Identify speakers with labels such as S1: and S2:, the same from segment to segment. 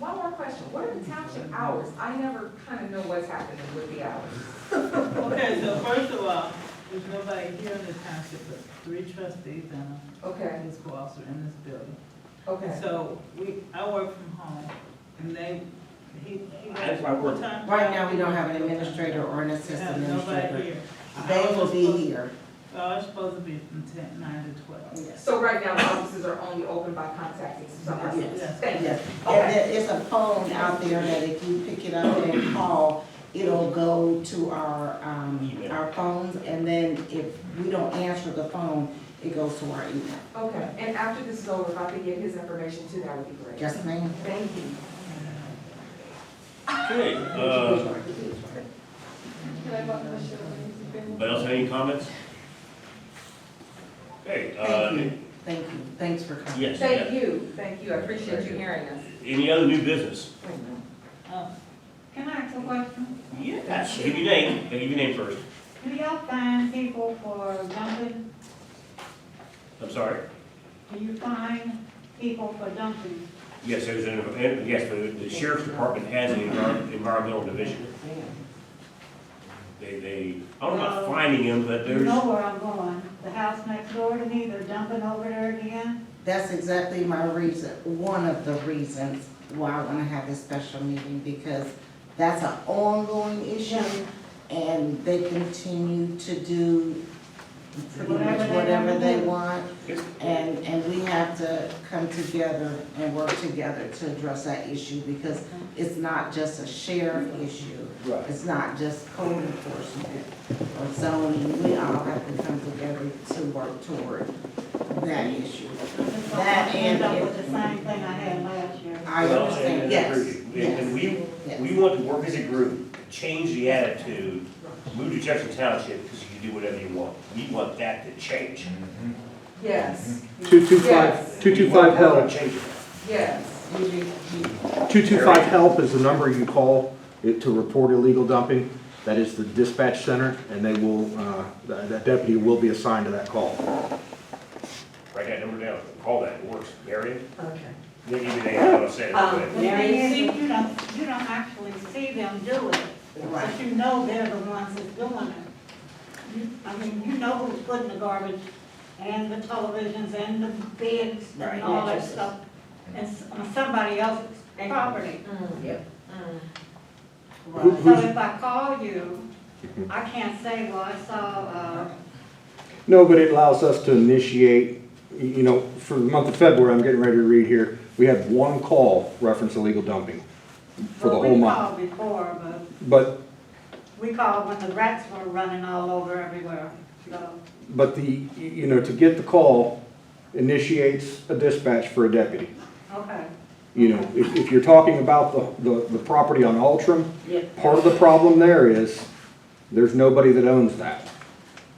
S1: more question, what are the township hours? I never kind of know what's happening with the hours.
S2: Okay, so first of all, there's nobody here in the township, but three trustees and a
S1: Okay,
S2: fiscal officer in this building.
S1: okay.
S2: So we, I work from home, and they, he, he.
S3: That's why I work.
S2: full-time
S4: Right now,
S2: job.
S4: we don't have an administrator or an assistant
S2: Have Nobody
S4: administrator.
S2: here.
S4: They
S2: I
S4: will
S2: was
S4: be
S2: supposed-
S4: here.
S2: So I was supposed to be from ten, nine to twelve.
S4: Yes.
S1: So right now, the offices are only open by contacting someone.
S2: Yes.
S1: Thank you.
S4: Yes. And there is a phone out there that if you pick it up and call, it'll go to our, um, our phones. And then if we don't answer the phone, it goes to our email.
S1: Okay, and after this is over, if I could get his information too, that would be great.
S4: Yes, ma'am?
S1: Thank you.
S3: Okay, uh,
S5: Can I vote for Shirley?
S3: anybody else have any comments? Okay, uh,
S4: Thank you. Thank you. Thanks for coming.
S3: yes,
S1: Thank
S3: yeah.
S1: you, thank you, I appreciate you hearing us.
S3: any other new business?
S1: Wait a minute.
S2: Um, Can I ask a question?
S3: Yes, give your name, give your name first,
S2: Do y'all find people for dumping?
S3: I'm sorry.
S2: Do you find people for dumping?
S3: Yes, there's an, and yes, the the sheriff's department has an envir- environmental division. They, they, I'm
S4: Oh.
S3: not finding them, but
S6: You
S3: there's,
S6: know where I'm going, the house next door to me, they're dumping over there again.
S4: That's exactly my reason, one of the reasons why I wanna have this special meeting, because that's an ongoing issue, and they continue to do pretty
S6: Whatever
S4: much
S6: they
S4: whatever
S6: wanna
S4: they
S6: do.
S4: want, and, and we have to come together and work together to address that issue, because it's not just a sheriff issue.
S3: Right.
S4: It's not just code enforcement or zoning, we all have to come together to work toward that issue.
S6: It's like
S4: That
S6: I end
S4: and
S6: up with
S4: it-
S6: the same thing I had last year.
S4: I
S3: Well,
S4: understand,
S3: and-
S4: yes,
S3: and- And
S4: yes,
S3: we, we
S4: yes.
S3: want to work as a group, change the attitude, move to Jefferson Township, because you can do whatever you want. We want that to change.
S1: Yes. Yes.
S7: 225, 225
S3: We want
S7: help.
S3: to change it.
S1: Yes,
S4: You do- you-
S7: 225 help is the number you call it to report illegal dumping. That is the dispatch center, and they will, uh, that that deputy will be assigned to that call.
S3: Write that number down, call that, it works, Marion,
S1: okay.
S3: then you can add what I said.
S1: Um,
S3: but-
S6: The thing is, you you don't, you don't actually see them do it, but
S4: Right.
S6: you know they're the ones that's doing it. You- I mean, you know who's putting the garbage and the televisions and the beds
S4: Right.
S6: and all that stuff. It's on somebody else's property.
S1: Yep.
S7: Who-
S6: So
S7: who's-
S6: if I call you, I can't say, well, I saw, uh,
S7: No, but it allows us to initiate, y- you know, for the month of February, I'm getting ready to read here, we have one call reference illegal dumping for the
S6: well,
S7: whole
S6: we
S7: month.
S6: called before, but
S7: But,
S6: we called when the rats were running all over everywhere, so.
S7: but the, y- you know, to get the call initiates a dispatch for a deputy.
S6: Okay.
S7: You know, if, if you're talking about the, the, the property on Altram, part of the problem there is, there's nobody that owns that,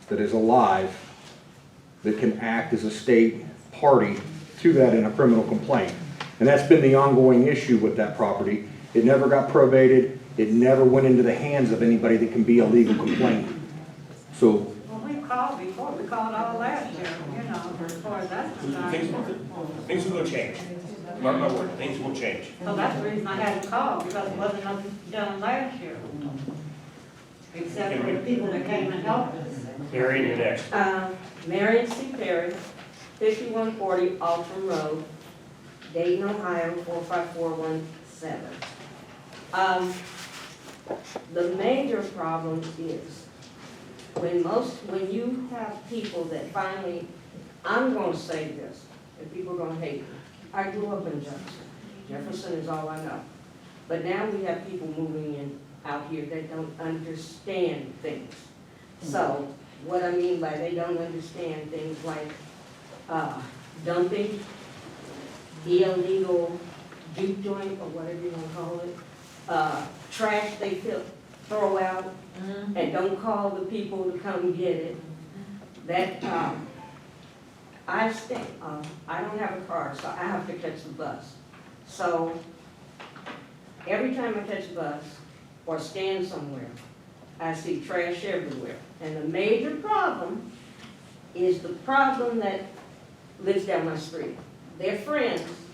S7: that is alive, that can act as a state party to that in a criminal complaint. And that's been the ongoing issue with that property. It never got probated, it never went into the hands of anybody that can be a legal complainant. So,
S6: Well, we called before, we called all last year, you know, as far as that's
S3: Things,
S6: concerned.
S3: things will change. Mark my word, things will change.
S6: So that's the reason I had to call, because it wasn't nothing done last year. Except for the people that came and helped us.
S3: Marion, you're next.
S8: Um, Marion C. Perry, fifty-one forty Alton Road, Dayton, Ohio, four five four one seven. Um, the major problem is when most, when you have people that finally, I'm gonna say this, and people are gonna hate me. I grew up in Jefferson. Jefferson is all I know. But now we have people moving in out here that don't understand things. So, what I mean by they don't understand things like uh, dumping, illegal juke joint, or whatever you wanna call it, uh, trash they fill- throw out, and don't call the people to come get it. That, um, I stay, um, I don't have a car, so I have to catch the bus. So, every time I catch a bus or stand somewhere, I see trash everywhere. And the major problem is the problem that lives down my street. They're friends,